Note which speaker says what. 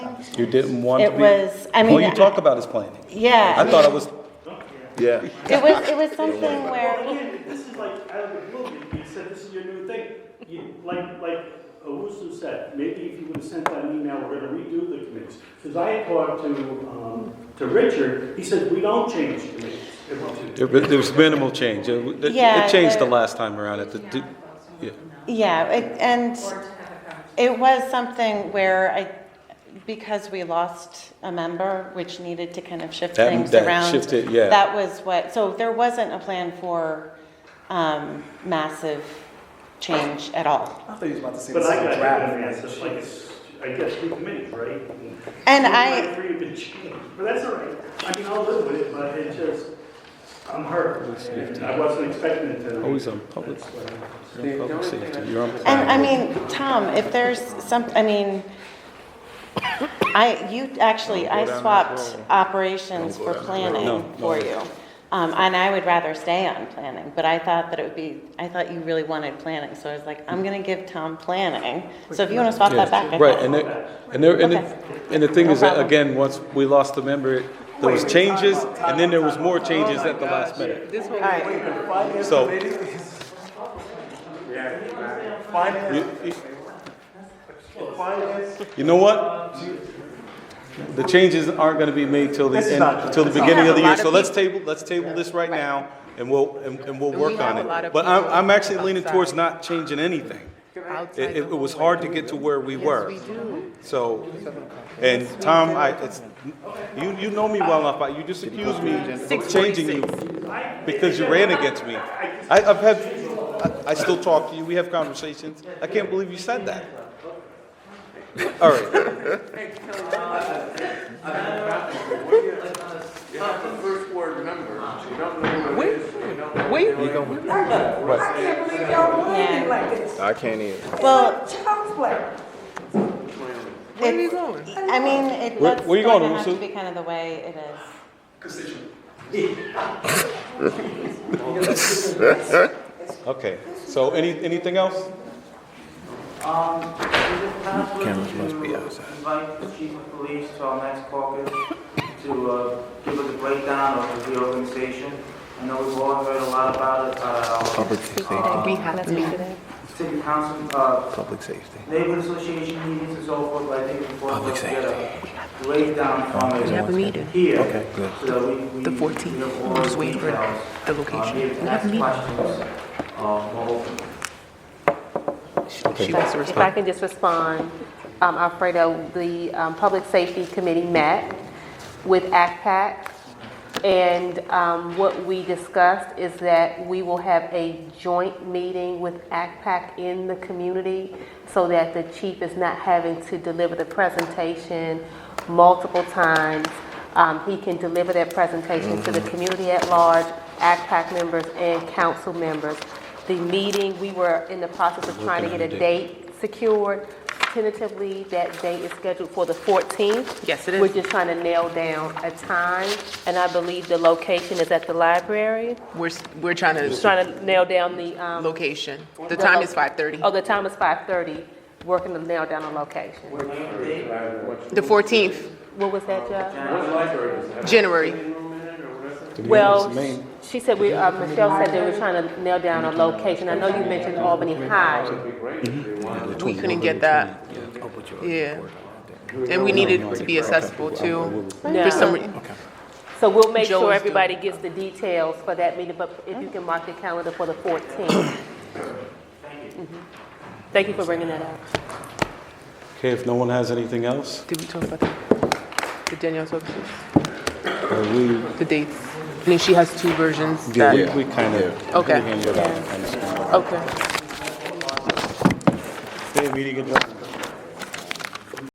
Speaker 1: You didn't want to
Speaker 2: It
Speaker 1: be.
Speaker 2: was- I
Speaker 1: All
Speaker 2: mean,
Speaker 1: you talk about is planning. I
Speaker 2: Yeah,
Speaker 1: thought it was,
Speaker 3: Yeah.
Speaker 2: it was, it was something
Speaker 4: Well,
Speaker 2: where,
Speaker 4: again, this is like out of the blue, you- you said this is your new thing. You, like, like Owusu said, maybe if you would have sent that email, we're gonna redo the committees. Because I had talked to, um, to Richard, he said, we don't change committees. It wasn't-
Speaker 1: there was there was minimal change. It w- it-
Speaker 2: Yeah,
Speaker 1: it changed the
Speaker 2: there-
Speaker 1: last time around. It did- did- yeah.
Speaker 2: yeah, it- and it was something where I, because we lost a member, which needed to kind of shift
Speaker 1: That-
Speaker 2: things
Speaker 1: that
Speaker 2: around.
Speaker 1: shifted, yeah.
Speaker 2: That was what, so there wasn't a plan for, um, massive change at all.
Speaker 5: I thought you was about to say
Speaker 4: But
Speaker 5: this is
Speaker 4: I
Speaker 5: a
Speaker 4: got
Speaker 5: draft.
Speaker 4: it, it's like, it's- I guess three committees, right?
Speaker 2: And
Speaker 4: Two of
Speaker 2: I.
Speaker 4: my Three have been changed, but that's all right. I mean, I'll live with it, but it just, I'm hurt. And I wasn't expecting it tonight.
Speaker 1: Always on public, you're on public safety. You're on.
Speaker 2: And I mean, Tom, if there's some, I mean, I, you, actually, I swapped operations
Speaker 1: No,
Speaker 2: for planning
Speaker 1: no.
Speaker 2: for you. Um, and I would rather stay on planning, but I thought that it would be, I thought you really wanted planning, so I was like, I'm gonna give Tom planning. So if you wanna swap that back, I
Speaker 1: Yeah, Right, and
Speaker 2: guess.
Speaker 1: there, and there, and
Speaker 2: Okay.
Speaker 1: it- and the thing
Speaker 2: No
Speaker 1: is that,
Speaker 2: problem.
Speaker 1: again, once we lost the member, there was
Speaker 5: Wait,
Speaker 1: changes,
Speaker 5: time out, time
Speaker 1: and then
Speaker 5: out,
Speaker 1: there was
Speaker 5: time
Speaker 1: more
Speaker 5: out.
Speaker 1: changes
Speaker 5: Oh my
Speaker 1: at the last minute.
Speaker 5: This whole
Speaker 2: Alright.
Speaker 5: wait, the finance
Speaker 1: So-
Speaker 5: committee is. Yeah. Finance,
Speaker 1: You- you-
Speaker 5: finance.
Speaker 1: You know what? The changes aren't gonna be made till the
Speaker 5: This is
Speaker 1: end,
Speaker 5: not-
Speaker 1: till the
Speaker 5: this is
Speaker 1: beginning
Speaker 6: not-
Speaker 1: of the
Speaker 6: We
Speaker 1: year,
Speaker 6: have a
Speaker 1: so
Speaker 6: lot
Speaker 1: let's
Speaker 6: of
Speaker 1: table, let's table this right now, and we'll, and, and we'll
Speaker 6: we
Speaker 1: work on
Speaker 6: have a lot
Speaker 1: it.
Speaker 6: of
Speaker 1: But I'm,
Speaker 6: people-
Speaker 1: I'm actually
Speaker 6: I'm
Speaker 1: leaning towards not changing anything. It, it- it was hard to get to where we were,
Speaker 6: We do.
Speaker 1: so, and Tom, I, it's, you, you know me well enough, I- you just accused me of changing you because you ran against me. I, I've had, I, I still talk to you, we have conversations, I can't believe you said that. All right.
Speaker 7: You have the first word member, you don't know who it
Speaker 6: Wait,
Speaker 7: is.
Speaker 6: wait,
Speaker 8: I can't believe y'all playing like this.
Speaker 3: I can't even.
Speaker 2: Well,
Speaker 8: Child's play.
Speaker 6: where are you going?
Speaker 2: I mean, it,
Speaker 1: Where-
Speaker 2: that's
Speaker 1: where you
Speaker 2: going to
Speaker 1: going,
Speaker 2: have to
Speaker 1: Usu?
Speaker 2: be kind of the way it is.
Speaker 1: Okay, so any, anything else?
Speaker 3: Cameras must be outside.
Speaker 9: Invite the chief of police to our next caucus to uh, give us a breakdown of the reorganization. I know we've all heard a lot about it, uh,
Speaker 3: Public safety.
Speaker 6: We have to.
Speaker 9: city council, uh,
Speaker 3: Public safety.
Speaker 9: neighborhood association meetings and so forth, but I think it's important
Speaker 3: Public
Speaker 9: to get a breakdown from
Speaker 6: We have a
Speaker 9: it
Speaker 6: meeting.
Speaker 9: here.
Speaker 3: Okay, good.
Speaker 9: So that we, we.
Speaker 6: The 14th.
Speaker 9: we have
Speaker 6: We'll
Speaker 9: all
Speaker 6: just wait for
Speaker 9: details,
Speaker 6: the
Speaker 9: uh,
Speaker 6: location.
Speaker 9: be able to
Speaker 6: We have a
Speaker 9: ask
Speaker 6: meeting.
Speaker 9: questions, uh, more open.
Speaker 6: She has to
Speaker 10: If I
Speaker 6: respond.
Speaker 10: can just respond, um, Alfredo, the um, Public Safety Committee met with ACPAC, and um, what we discussed is that we will have a joint meeting with ACPAC in the community so that the chief is not having to deliver the presentation multiple times. Um, He can deliver that presentation to the community at large, ACPAC members, and council members. The meeting, we were in the process of trying to get a date secured. Tentatively, that date is scheduled for the 14th.
Speaker 6: Yes, it is.
Speaker 10: We're just trying to nail down a time, and I believe the location is at the library.
Speaker 6: We're, s- we're trying
Speaker 10: Just
Speaker 6: to,
Speaker 10: trying to nail down the, um,
Speaker 6: location. The time is five thirty.
Speaker 10: oh, the time is 5:30, working to nail down a location.
Speaker 6: The fourteenth,
Speaker 10: What was that, Joe?
Speaker 6: January.
Speaker 10: Well, she said we, uh, Michelle said they were trying to nail down a location. I know you mentioned Albany High.
Speaker 6: We couldn't get that. Yeah. And we needed it to be accessible too.
Speaker 10: No.
Speaker 6: For some, re-
Speaker 10: So we'll make
Speaker 6: Joe
Speaker 10: sure
Speaker 6: is Mm-hmm.
Speaker 10: everybody gets the details for that meeting, but if you can mark your calendar for the 14th. Mhm. Thank you for bringing that up.
Speaker 1: Okay, if no one has anything else,
Speaker 6: did we talk about that? The Danielle's services,
Speaker 1: uh, we,
Speaker 6: the dates. I mean, she has two versions that,
Speaker 1: we- we kind of.
Speaker 6: Okay.
Speaker 1: Meeting
Speaker 6: okay.
Speaker 1: adjourned.